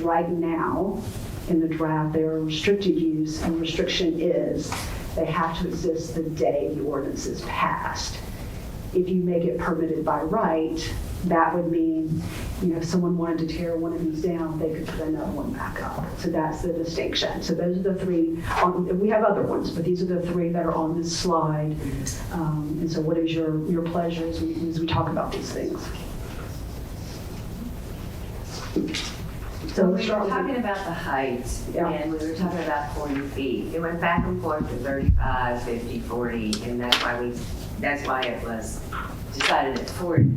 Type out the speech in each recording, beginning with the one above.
Right now, in the draft, their restricted use, and restriction is, they have to exist the day the ordinance is passed. If you make it permitted by right, that would mean, you know, if someone wanted to tear one of these down, they could put another one back up. So that's the distinction. So those are the three, on- we have other ones, but these are the three that are on this slide. Um, And so what is your, your pleasure as we, as we talk about these things? So let's So we were start with. talking about the height, Yeah. and we were talking about 40 feet. It went back and forth to 35, 50, 40, and that's why we, that's why it was decided at 40.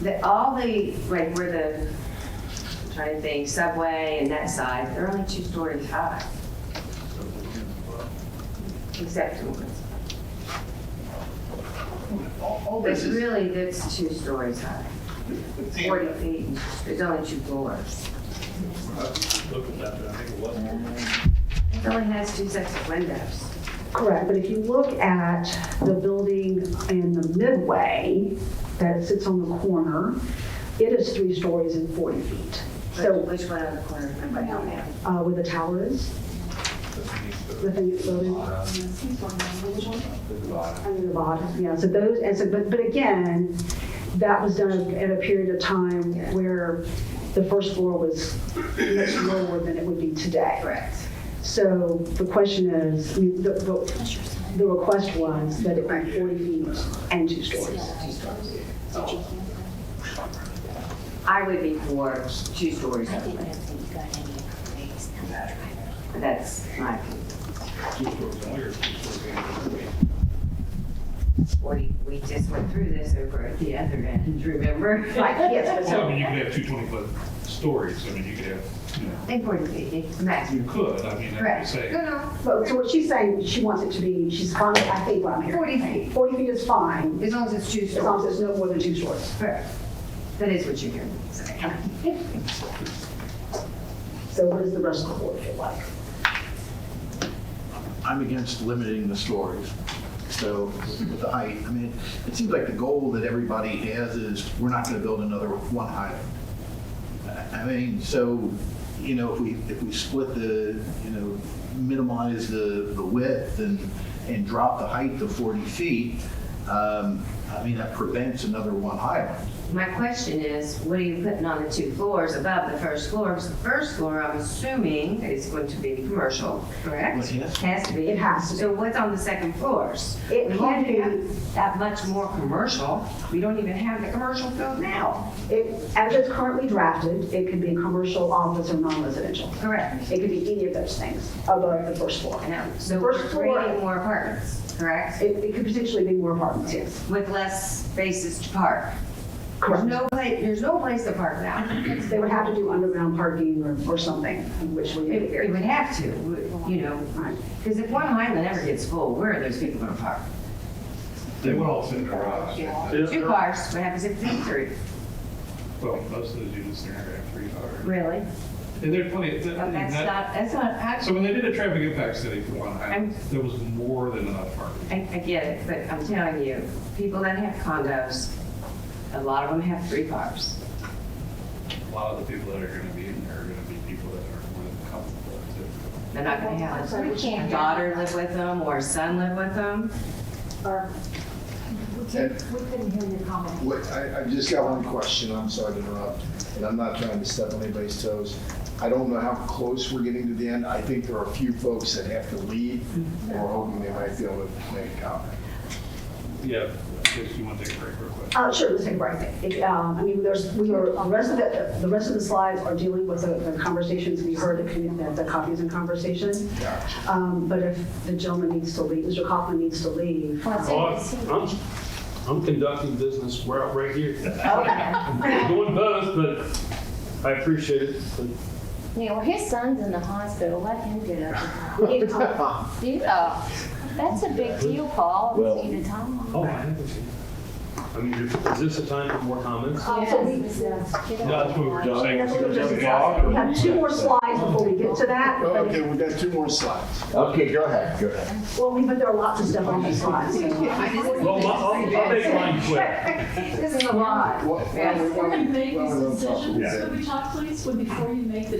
The, all the, like, where the, I'm trying to think, subway and that side, they're only two-story high. Except for ones. All all It's this is, really, that's two stories high, the- 40 feet, there's only two floors. Look at that, but I think it was. It only has two sets of windows. Correct, but if you look at the building in the midway that sits on the corner, it is three stories and 40 feet. So Which one on the corner of my home now? uh, where the tower is, the thing that's building under the bottom, yeah, so those, and so, but, but again, that was done at a period of time where the first floor was much lower than it would be today. Correct. So the question is, I mean, the, the the request was that it be 40 feet and two stories. I would be for two stories only. That's my opinion. Two stories only or two stories? We, we just went through this over at the other end, remember? Right, yes, but Well, I so, mean, you could have two twenty-foot stories, I mean, you could have, you know, Important, maximum. you could, I mean, I would Correct. say. No, no, but- so what she's saying, she wants it to be, she's fine, I think what I'm hearing. 40 feet. 40 feet is fine, as long as it's two as long as stories. there's no more than two stories. Correct. That is what you're hearing. Sorry. So what does the rest of the board feel like? I'm against limiting the stories. So with the height, I mean, it seems like the goal that everybody has is we're not going to build another one high. I I mean, so, you know, if we, if we split the, you know, minimize the, the width and, and drop the height to 40 feet, um, I mean, that prevents another one high. My question is, what are you putting on the two floors above the first floor? Because the first floor, I'm assuming, is going to be commercial, correct? Well, yes. Has to be. It has to be. So what's on the second floors? It We can can't be- have that much more commercial. We don't even have the commercial code now. It, as it's currently drafted, it could be commercial, office, or non-residential. Correct. It could be any of those things above the first floor. Now, So we're First floor- creating more apartments, correct? It, it could potentially be more apartments, yes. With less spaces to park. There's no place, there's no place to park now. They would have to do underground parking or, or something, which we. It it would have to, you know, Right. because if one Highland ever gets full, where are those people going to park? They would all fit in a garage. Two cars, what happens if it's three? Well, most of those units, they're not gonna have three cars. Really? And there's plenty, of- But that- that's that- not, that's not, I, so when they did a traffic impact study for One Highland, I'm- there was more than enough parking. I I get it, but I'm telling you, people that have condos, a lot of them have three cars. A lot of the people that are gonna be in there are gonna be people that are more than comfortable to. They're not gonna have a daughter live with them or a son live with them. Wait, I, I just got one question, I'm sorry to interrupt, and I'm not trying to step on anybody's toes. I don't know how close we're getting to the end, I think there are a few folks that have to leave, and we're hoping they might be able to make a comment. Yeah, if you want to take a break real quick. Uh, sure, let's take a break. It, um, I mean, there's, we are, the rest of the, the rest of the slides are dealing with the the conversations we heard, the commu- the- the coffees and conversations. Um, But if the gentleman needs to leave, Mr. Kaufman needs to leave. Well, I'm, I'm conducting business, we're out right here. Doing both, but I appreciate it. but- Yeah, well, his son's in the hospital, let him get up. We need to talk. Yeah, uh, that's a big deal, Paul, Well- you to talk. Oh, I haven't seen it. I mean, is this a time for more comments? Um, so we- Yes, yes. uh, Get No, that's what we were up. just saying. that's what we're just discussing. We have two more slides slides before we get to that. Oh, but- Okay, we got two more slides. Okay, go ahead, go ahead. Well, we, but there are lots of stuff on these slides. Well, my- I'll, I'll make mine quick. This is a lot. What- what- Yes. what- We're going to make what- these what- what- decisions, could we talk, please, when before you make the